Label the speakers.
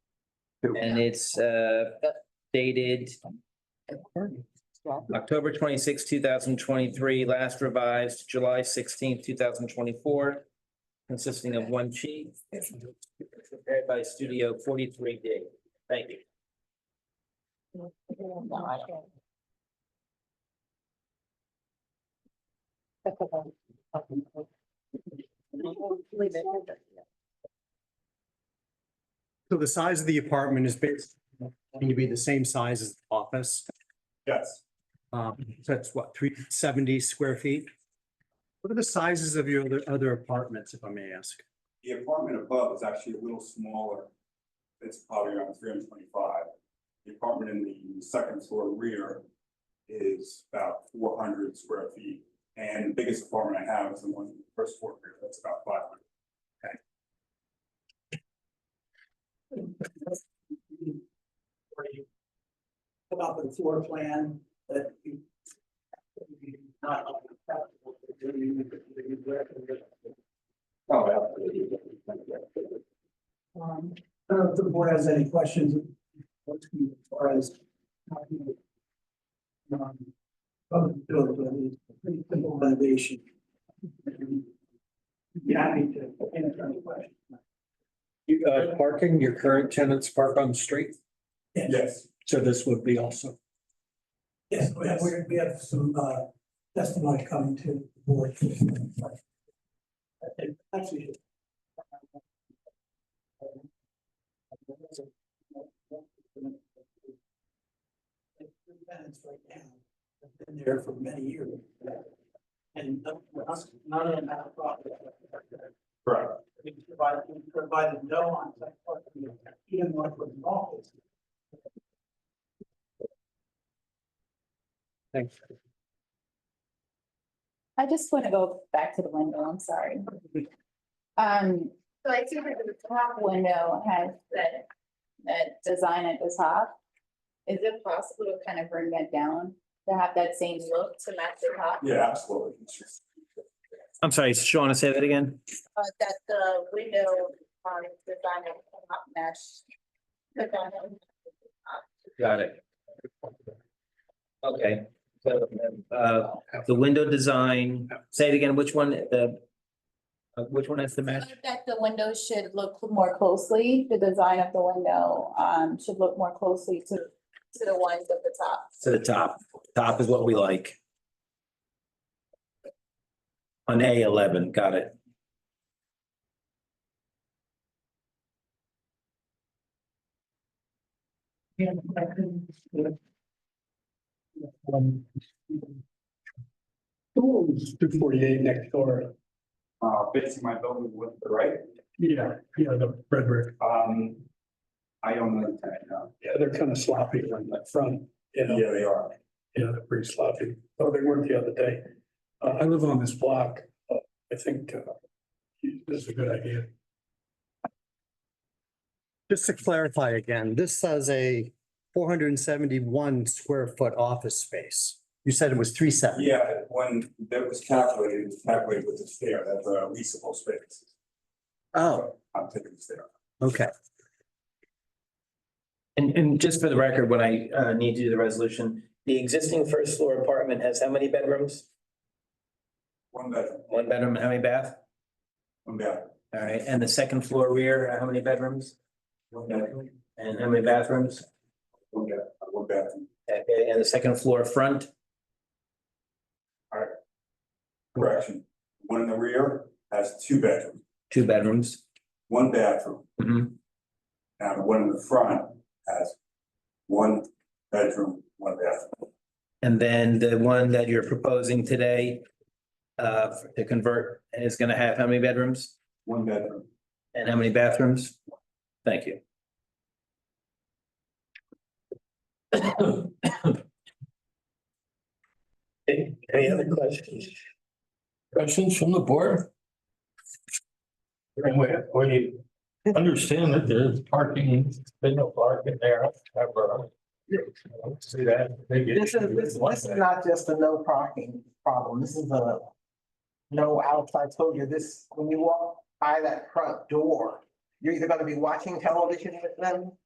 Speaker 1: and it's uh dated October twenty-sixth, two thousand twenty-three, last revised July sixteenth, two thousand twenty-four, consisting of one sheet. Prepared by Studio forty-three D. Thank you.
Speaker 2: So the size of the apartment is basically going to be the same size as the office.
Speaker 3: Yes.
Speaker 2: Um, so that's what, three seventy square feet? What are the sizes of your other- other apartments, if I may ask?
Speaker 3: The apartment above is actually a little smaller. It's probably around three hundred twenty-five. The apartment in the second floor rear is about four hundred square feet. And the biggest apartment I have is the one in the first floor rear, that's about five hundred.
Speaker 4: for you About the floor plan that you. Not acceptable to do, you- you recommend.
Speaker 3: Oh, yeah.
Speaker 4: Um, I don't know if the board has any questions. As far as. how you, um, Public building, but it's a pretty simple renovation. Yeah, I need to answer any questions.
Speaker 5: You, uh, parking, your current tenants park on the street,
Speaker 3: Yes,
Speaker 5: so this would be also.
Speaker 4: Yes, we have, we have some uh, testimony coming to the board. Actually. Tenants right now, have been there for many years. And none of us, none of them have a problem.
Speaker 3: correct.
Speaker 4: We provided, we provided no on-site parking, even when it was an office.
Speaker 2: Thanks.
Speaker 6: I just want to go back to the window, I'm sorry. Um, so I see that the top window has that, that design at the top. Is it possible to kind of bring that down, to have that same look to match the top?
Speaker 3: Yeah, absolutely.
Speaker 1: I'm sorry, Shawna, say that again?
Speaker 6: Uh, that the window, um, design at the top match. the dining.
Speaker 1: Got it. Okay, so, uh, the window design, say it again, which one, the, uh, which one has the match?
Speaker 6: So That the window should look more closely, the design of the window, um, should look more closely to, to the ones at the top.
Speaker 1: To the top, top is what we like. On A eleven, got it.
Speaker 5: Two forty-eight next door.
Speaker 3: Uh, facing my building with the right,
Speaker 5: Yeah, yeah, the red brick,
Speaker 3: um, I own the tenant now.
Speaker 5: yeah, they're kind of sloppy on that front, you know,
Speaker 3: Yeah, they are.
Speaker 5: yeah, they're pretty sloppy, oh, they weren't the other day. Uh, I live on this block, uh, I think, uh, this is a good idea.
Speaker 2: Just to clarify again, this says a four hundred and seventy-one square foot office space. You said it was three seventy.
Speaker 3: Yeah, when that was calculated, it was calculated with the stair, that's a leasable space.
Speaker 2: Oh,
Speaker 3: I'm taking the stair.
Speaker 2: okay.
Speaker 1: And, and just for the record, when I, uh, need to do the resolution, the existing first floor apartment has how many bedrooms?
Speaker 3: One bedroom,
Speaker 1: One bedroom, how many bath?
Speaker 3: one bathroom.
Speaker 1: All right, and the second floor rear, how many bedrooms?
Speaker 3: One bedroom,
Speaker 1: And how many bathrooms?
Speaker 3: one bathroom, one bathroom.
Speaker 1: Okay, and the second floor front?
Speaker 3: Correction, one in the rear has two bedrooms,
Speaker 1: Two bedrooms.
Speaker 3: one bathroom,
Speaker 1: Mhm.
Speaker 3: and the one in the front has one bedroom, one bathroom.
Speaker 1: And then the one that you're proposing today uh, to convert is gonna have how many bedrooms
Speaker 3: One bedroom,
Speaker 1: and how many bathrooms? Thank you.
Speaker 7: Any other questions? Questions from the board? And we, we understand that there's parking, there's no parking there, however. See that?
Speaker 8: This is, this, this is not just a no parking problem, this is a no outside, I told you, this, when you walk by that front door, you're either gonna be watching television with them